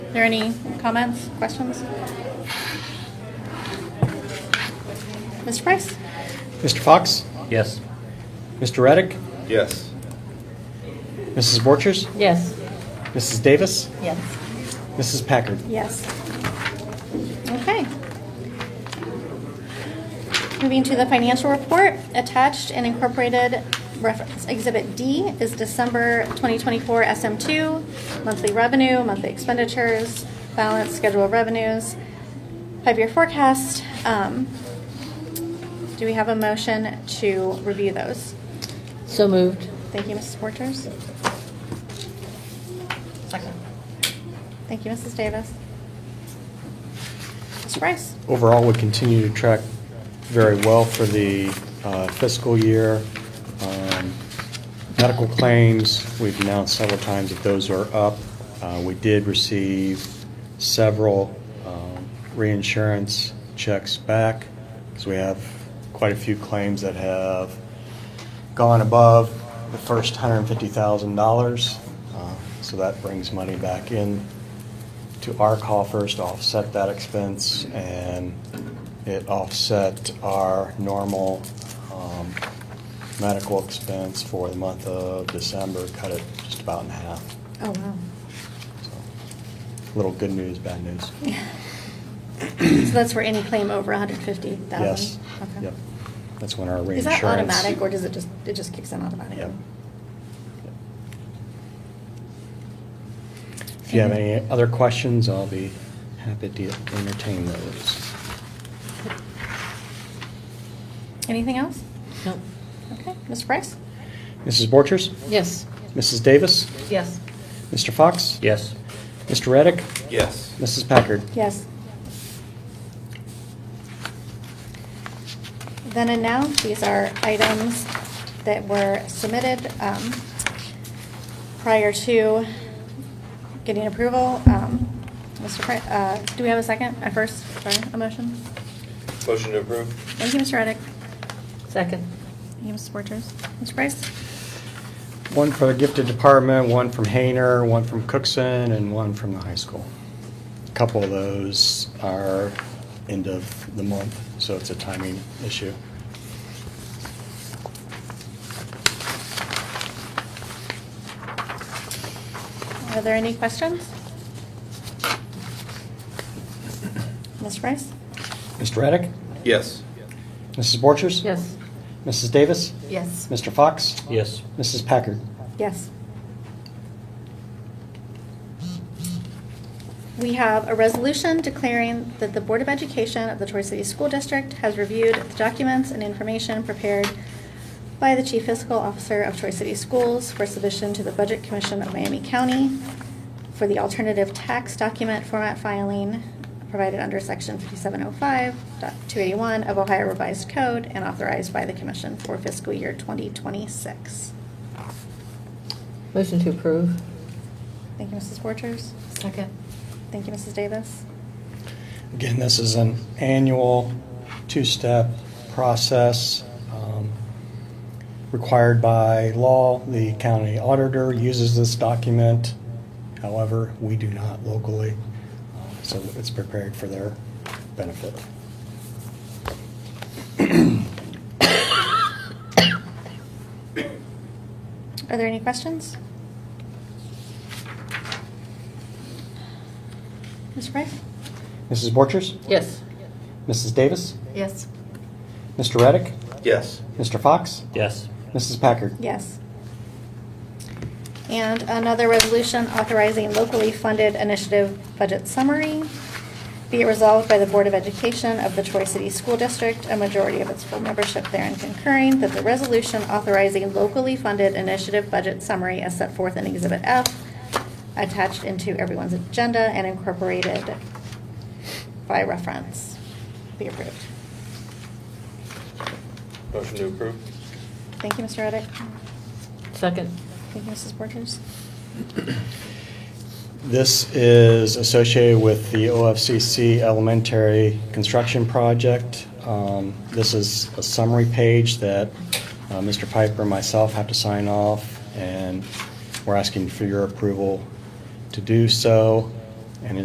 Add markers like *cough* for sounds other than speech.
there any comments, questions? Mr. Price? Mr. Fox? Yes. Mr. Reddick? Yes. Mrs. Borchers? Yes. Mrs. Davis? Yes. Mrs. Packard? Yes. Okay. Moving to the financial report, attached and incorporated reference Exhibit D is December 2024 SM2, monthly revenue, monthly expenditures, balance, schedule of revenues, five-year forecast. Um, Do we have a motion to review those? So moved. Thank you, Mrs. Porters. Second. Thank you, Mrs. Davis. Mr. Price? Overall, we continue to track very well for the uh, fiscal year. Um, Medical claims, we've announced several times that those are up. Uh, We did receive several um, reinsurance checks back, because we have quite a few claims that have gone above the first $150,000. Uh, So that brings money back in to our coffers to offset that expense, and it offset our normal um, medical expense for the month of December, cut it just about in half. Oh, wow. So, Little good news, bad news. *laughs* So that's for any claim over 150,000? Yes. Okay. Yep. That's when our Is reinsurance. that automatic, or does it just, it just kicks in automatically? Yep. Yep. If you have any other questions, I'll be happy to entertain those. Anything else? Nope. Okay, Mr. Price? Mrs. Borchers? Yes. Mrs. Davis? Yes. Mr. Fox? Yes. Mr. Reddick? Yes. Mrs. Packard? Yes. Then and now, these are items that were submitted um, prior to getting approval. Um, Mr. Price, uh, do we have a second, a first, sorry, a motion? Motion to approve? Thank you, Mr. Reddick. Second. Thank you, Mrs. Borchers. Mr. Price? One for the gifted department, one from Hayner, one from Cookson, and one from the high school. A Couple of those are end of the month, so it's a timing issue. Are there any questions? Ms. Price? Mr. Reddick? Yes. Mrs. Borchers? Yes. Mrs. Davis? Yes. Mr. Fox? Yes. Mrs. Packard? Yes. We have a resolution declaring that the Board of Education of the Troy City School District has reviewed the documents and information prepared by the Chief Fiscal Officer of Troy City Schools for submission to the Budget Commission of Miami County for the alternative tax document format filing provided under Section 5705.281 of Ohio Revised Code and authorized by the Commission for fiscal year 2026. Motion to approve. Thank you, Mrs. Borchers. Second. Thank you, Mrs. Davis. Again, this is an annual two-step process um, required by law. The county auditor uses this document. However, we do not locally, uh, so it's prepared for their benefit. Are there any questions? Mr. Price? Mrs. Borchers? Yes. Mrs. Davis? Yes. Mr. Reddick? Yes. Mr. Fox? Yes. Mrs. Packard? Yes. And another resolution authorizing locally funded initiative budget summary. Be it resolved by the Board of Education of the Troy City School District, a majority of its full membership therein concurring, that the resolution authorizing locally funded initiative budget summary as set forth in Exhibit F, attached into everyone's agenda and incorporated by reference, be approved. Motion to approve? Thank you, Mr. Reddick. Second. Thank you, Mrs. Borchers. This is associated with the OFCC Elementary Construction Project. Um, This is a summary page that uh, Mr. Piper and myself have to sign off, and we're asking for your approval to do so.